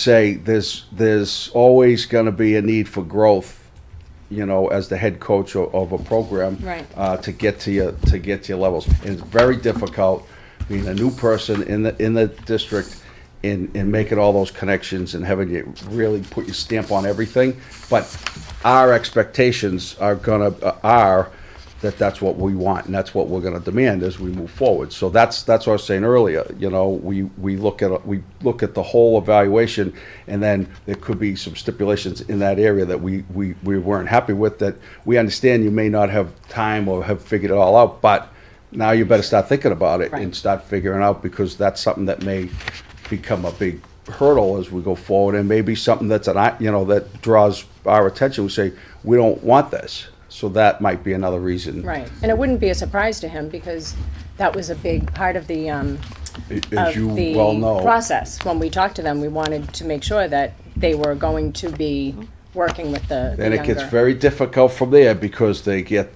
say there's there's always going to be a need for growth, you know, as the head coach of, of a program, Right. Uh, to get to your to get to your levels, and it's very difficult being a new person in the in the district. And, and making all those connections and having to really put your stamp on everything, but our expectations are gonna uh, are that that's what we want and that's what we're gonna demand as we move forward. So that's, that's what I was saying earlier, you know, we, we look at, we look at the whole evaluation and then there could be some stipulations in that area that we, we, we weren't happy with that we understand you may not have time or have figured it all out, but now you better start thinking about it and Right. start figuring out because that's something that may become a big hurdle as we go forward and maybe something that's an, eye- you know, that draws our attention. We say, we don't want this. So that might be another reason. Right, and it wouldn't be a surprise to him because that was a big part of the, um, As of you the well know, process. When we talked to them, we wanted to make sure that they were going to be working with the the then it gets younger- very difficult from there because they get,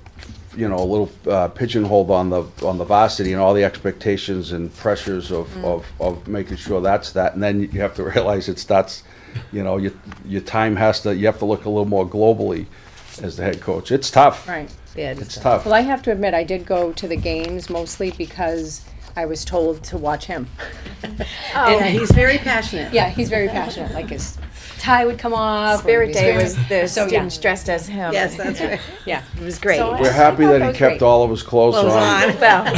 you know, a little uh, pigeonholed on the, on the varsity and all the expectations and pressures Mm. of, of, of making sure that's that. And then you have to realize it starts, you know, your, your time has to, you have to look a little more globally as the head coach. It's tough. Right. It's tough. Well, I have to admit, I did go to the games mostly because I was told to watch him. Oh, he's very passionate. Yeah, he's very passionate, like his tie would come off. or Spirit his Day spirit- was the So, yeah. students dressed as him. Yes, that's right. uh, Yeah. It was great. So- We're I happy thought that that he was kept great. all of his clothes Clothes on. on.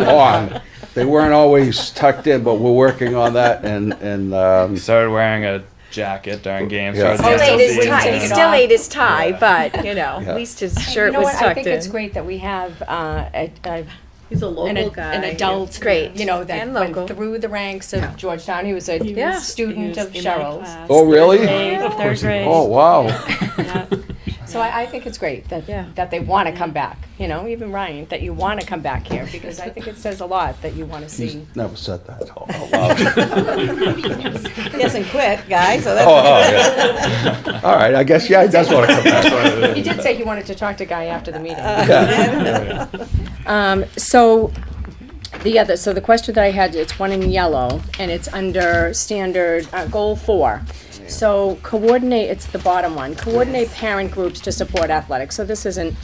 Well, On. They weren't always tucked in, but we're working on that and, and, um, He started wearing a jacket during games. Yeah. started still Oh, so dancing ate his he tie, took he it season. still off. ate his tie, but, you know, Yeah. at least his You shirt know was what? I tucked think it's in. great that we have, uh, a, a He's a an, local ad- guy. an adult, Great. you know, that And went local. through the ranks of Georgetown. He was a Yeah. student of in my Cheryl's. class. oh, really? Third grade, third grade. Oh, wow. So I, I think it's great that, Yeah. that they want to come back, you know, even Ryan, that you want to come back here because I think it says a lot that you want to see. Never said that Oh, out loud. He hasn't quit, guy, so Oh, that's. oh, yeah. All right, I guess, yeah, he does want to come back. He did say he wanted to talk to Guy after the meeting. Uh, Yeah. Um, so, the other, so the question that I had, it's one in yellow, and it's under standard, uh, goal four. So coordinate, it's the bottom one, coordinate parent groups to support athletics, so this isn't,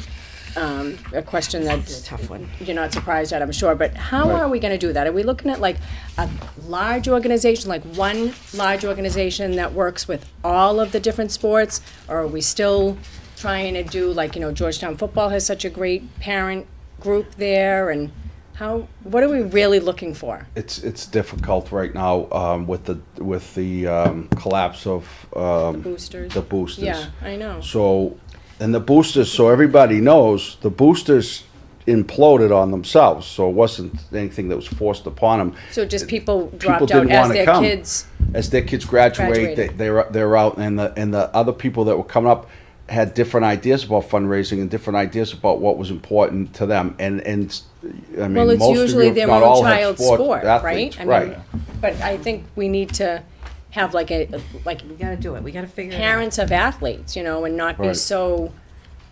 um, a question that's. tough one. You're not surprised at, I'm sure, but how Right. are we gonna do that? Are we looking at like a large organization, like one large organization that works with all of the different sports? Or are we still trying to do, like, you know, Georgetown football has such a great parent group there, and how, what are we really looking for? It's, it's difficult right now, um, with the, with the, um, collapse of, um, Boosters? the boosters. Yeah, I know. So, and the boosters, so everybody knows, the boosters imploded on themselves, so it wasn't anything that was forced upon them. So just people People dropped out didn't as want to their come. kids, As their kids graduate, they, Graduated. they're, they're out, and the, and the other people that were coming up had different ideas about fundraising and different ideas about what was important to them, and, and, I well, mean, it's most of you, usually if their not own all, have child's sport, sport athletes, right? I mean, right. But I think we need to have like a, like We gotta do it, we gotta figure it out. parents of athletes, you know, and not be Right. so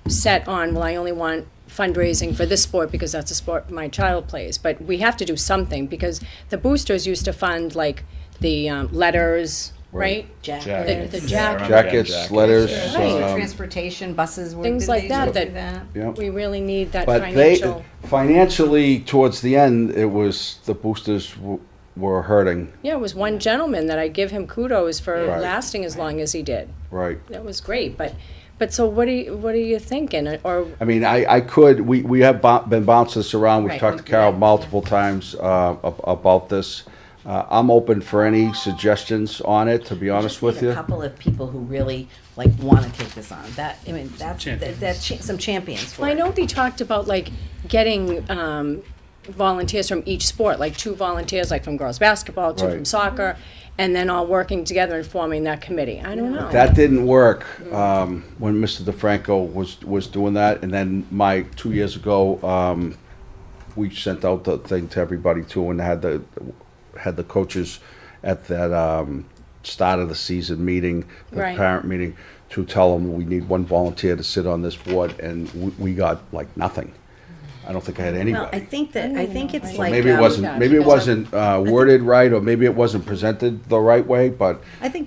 set on, well, I only want fundraising for this sport because that's a sport my child plays. But we have to do something because the boosters used to fund like the um, letters, right? Jackets. The- the Yeah, I remember getting Jackets, letters, um, Transportation, buses, were- Things did like they that, do that- yeah. We really need that But they financial. financially towards the end, it was the boosters w- were hurting, Yeah, it was one gentleman that I give him kudos for Right. lasting as long as he did. right? That was great, but, but so what are you, what are you thinking, or, I mean, I, I could, we, we have bo- been bouncing this around, we've Right. talked to Carol multiple times, uh, ab- about this. Uh, I'm open for any suggestions on it, to be honest with Need you. A couple of people who really like wanna take this on, that, I mean, that's, that- that's cha- some champions for Well, I it. know they talked about like getting um, volunteers from each sport, like two volunteers, like from girls basketball, two from Right. soccer, and then all working together and forming that committee. I don't know. That didn't work, um, when Mr. DeFranco was, was doing that, and then my, two years ago, um, we sent out the thing to everybody too, and had the, had the coaches at that, um, start of the season meeting, the Right. parent meeting, to tell them we need one volunteer to sit on this board, and we, we got like nothing. I don't think I had Well, I anybody. think that, I think it's So like. Maybe it um, wasn't, maybe it wasn't uh, worded right, or maybe it wasn't presented the right way, but I think